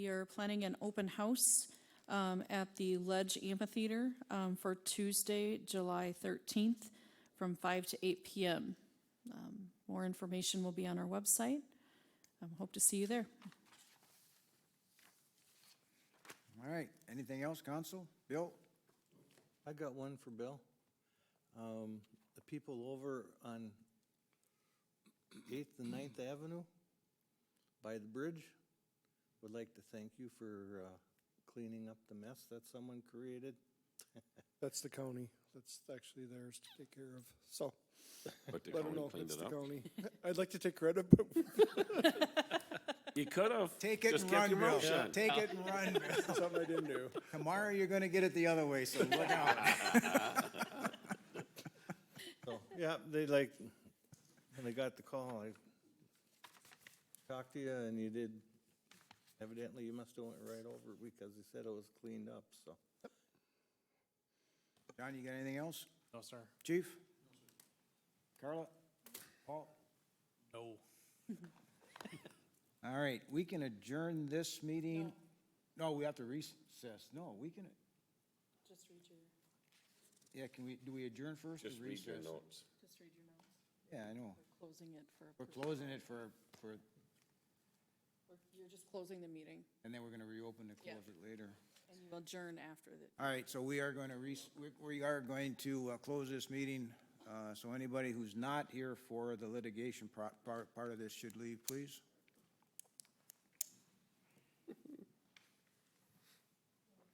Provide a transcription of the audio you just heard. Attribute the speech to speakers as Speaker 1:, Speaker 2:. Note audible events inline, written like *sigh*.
Speaker 1: We are planning an open house um, at the Ledge Amphitheater um, for Tuesday, July 13th, from 5 to 8 PM. Um, More information will be on our website. Um, Hope to see you there.
Speaker 2: All right, anything else, Council? Bill?
Speaker 3: I got one for Bill. Um, The people over on Eighth and Ninth Avenue by the bridge would like to thank you for uh, cleaning up the mess that someone created.
Speaker 4: That's the county. That's actually theirs to take care of. So
Speaker 5: But they
Speaker 4: I don't
Speaker 5: only
Speaker 4: know if
Speaker 5: cleaned
Speaker 4: it's
Speaker 5: it
Speaker 4: the
Speaker 5: up. *laughs*
Speaker 4: county. I'd like to take credit, but *laughs*
Speaker 5: You could have.
Speaker 2: Take it
Speaker 5: Just
Speaker 2: and
Speaker 5: kept
Speaker 2: run,
Speaker 5: your
Speaker 2: Bill.
Speaker 5: mouth shut.
Speaker 2: Take it and
Speaker 5: *laughs*
Speaker 2: run. Bill.
Speaker 4: something I didn't do.
Speaker 2: Tomorrow, you're gonna get it the other way, so look out.
Speaker 5: *laughs*
Speaker 3: So, yeah, they like, when they got the call, I talked to you and you did, evidently you must have went right over it because they said it was cleaned up, so.
Speaker 2: John, you got anything else?
Speaker 6: No, sir.
Speaker 2: Chief? Carla? Paul?
Speaker 6: No.
Speaker 2: *laughs* All right, we can adjourn this meeting. No, we have to recess. No, we can. Just read your. Yeah, can we, do we adjourn first or
Speaker 5: Just read your
Speaker 2: recess?
Speaker 5: notes.
Speaker 1: Just read your notes.
Speaker 2: Yeah, I know.
Speaker 1: Closing it for,
Speaker 2: We're closing it for, for,
Speaker 1: you're just closing the meeting,
Speaker 2: and then we're gonna reopen to
Speaker 1: Yeah.
Speaker 2: close it later.
Speaker 1: and you adjourn after the
Speaker 2: All right, so we are going to, res- we- we are going to uh, close this meeting. Uh, So anybody who's not here for the litigation pro- part part of this should leave, please.